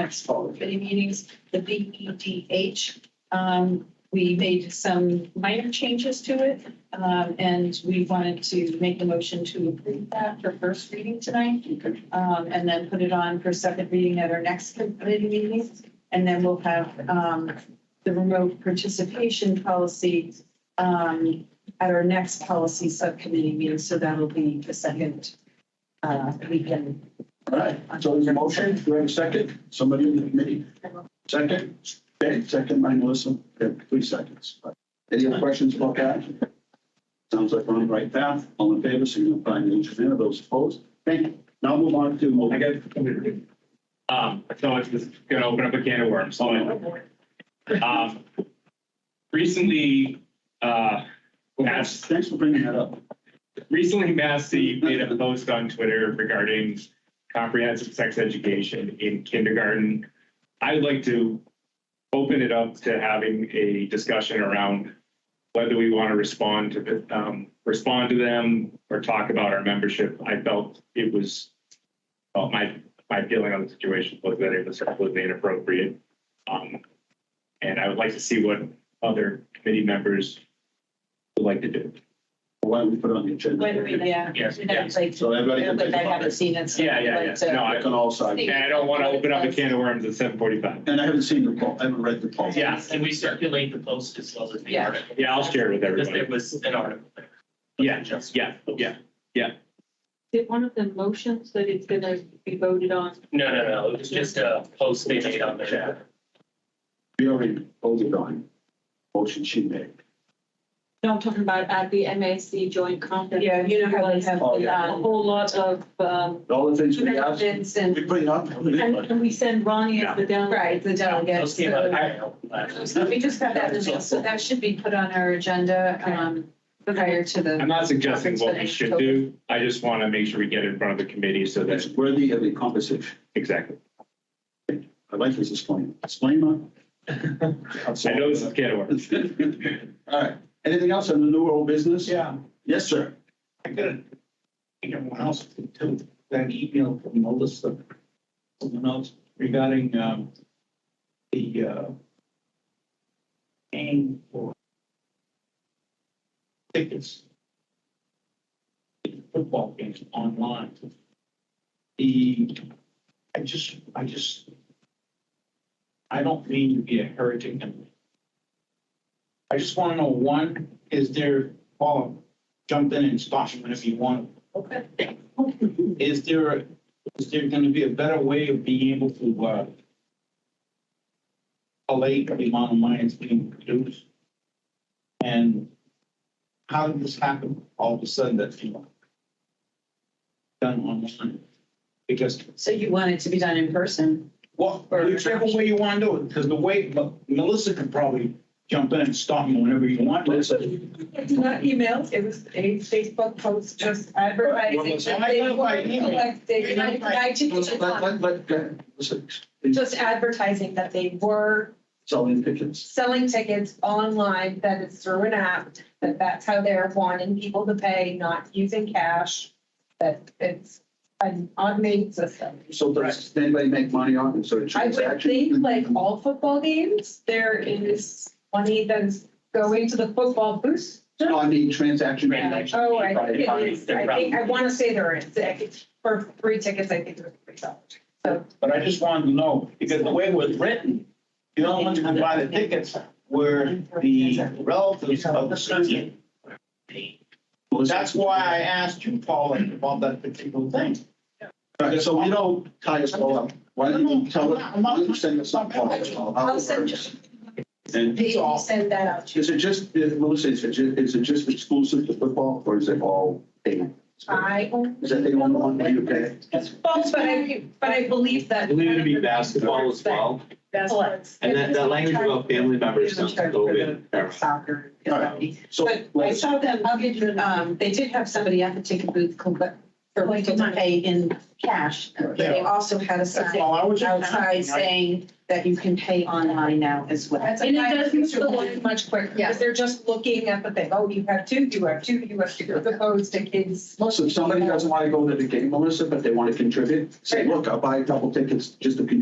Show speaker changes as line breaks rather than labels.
next fall committee meetings, the B E D H. Um, we made some minor changes to it, um, and we wanted to make the motion to approve that for first reading tonight. Um, and then put it on for second reading at our next committee meeting. And then we'll have, um, the remote participation policy, um, at our next policy subcommittee meeting. So that'll be the second, uh, weekend.
All right, so there's a motion, do we have a second? Somebody in the committee? Second, okay, second by Melissa, Okay, three seconds. Any other questions about that? Sounds like we're on the right path, all in favor, signify by raising your hand, those opposed. Thank you. Now move on
I
to,
got, um, so it's just gonna open up a can of worms, so. um, Recently, uh,
Mass. thanks for bringing that up.
recently Massey made a post on Twitter regarding comprehensive sex education in kindergarten. I would like to open it up to having a discussion around whether we want to respond to the, um, respond to them or talk about our membership. I felt it was, well, my, my feeling on the situation was that it was completely inappropriate. Um, and I would like to see what other committee members would like to do.
Why don't we put it on the agenda?
When we, yeah.
Yes,
You know,
yes.
Like,
So everybody can
like I
take
haven't
part.
seen it. so
Yeah,
I'd
yeah,
like
yeah.
to-
No,
Back on all sides,
And I don't want to open up a can of worms at seven forty-five.
and I haven't seen the poll, I haven't read the poll.
Yeah.
Can we circulate the post as well as the
Yeah.
article?
Yeah, I'll share with
Because there
everybody.
was an article there.
Yeah,
Just-
yeah, yeah.
Did one of the motions that it's gonna be voted on?
No, no, no, it was just a post they made on there.
We already voted on motion she made.
No, I'm talking about at the MAC joint conference. uh,
Yeah, you know how they have
Oh,
the,
yeah.
A
um,
whole lot of, um,
All the things we asked,
conventions
we
and,
bring up.
and and we send Ronnie as the delegate.
right, the
Those
delegates.
came out of
so-
Kyle last-
So we just got that in the mail, so that should be put on our agenda, um, prior to
I'm
the,
not suggesting what we should do. I just want to make sure we get in front of the committee so
That's
that,
worthy of a conversation.
exactly.
I like this disclaimer. Disclaimer.
I know this is a can of worms.
All right. Anything else on the new world business?
Yeah,
Yes, sir.
I got it. I think everyone else did too. Got an email from Melissa, someone else regarding, um, the, uh, paying for tickets. to Football games online. The, I just, I just, I don't mean to be a heretic. and- I just want to know, one, is there, Paul, jump in and stop him if you want.
Okay.
Is there, is there gonna be a better way of being able to, uh, collate the amount of money that's being produced? And how did this happen all of a sudden that, you know, done online? Because,
so you want it to be done in person?
well, whichever way you wanna do it, because the way, Melissa could probably jump in and stop him whenever you want.
It's not emails, it was a Facebook post just advertising.
that they want to collect-
Just advertising that they were
Selling pigeons.
selling tickets online, that it's through an app, that that's how they're wanting people to pay, not using cash, that it's an automated system.
So does anybody make money on it? So the
I would
transaction?
think like all football games, there is money that is going to the football booth.
No, I mean, transaction.
Transaction.
Oh, I think it is, I think, I want to say there is, I think for three tickets, I think there's three dollars.
But I just wanted to know, because the way it was written, the only ones who could buy the tickets were the relatives of the student. That's why I asked you, Paul, about that particular thing.
All right, so we don't tie us all up. Why don't you tell us, why don't you send us some poll?
I'll send you.
And
They will send that out to you.
Is it just, is- Melissa, is it ju- is it just exclusive to football or is it all paid?
I.
Is that the only one where you pay?
It's both, but I, but I believe that.
I believe it'd be basketball as well. And that, that language about family members sounds a little bit.
Soccer.
All right. So,
But I
let's-
saw them, I'll get you, um, they did have somebody at the ticket booth, collect- for people to pay in cash. But they also had a
That's
sign
all I was.
outside saying that you can pay online now as well.
And it doesn't fill in
much quicker,
Yeah.
because they're just looking at the thing, oh, you have two, you have two, you have two, as opposed to kids.
Listen, if somebody doesn't want to go to the game, Melissa, but they want to contribute, say, look, I'll buy a couple tickets just to contribute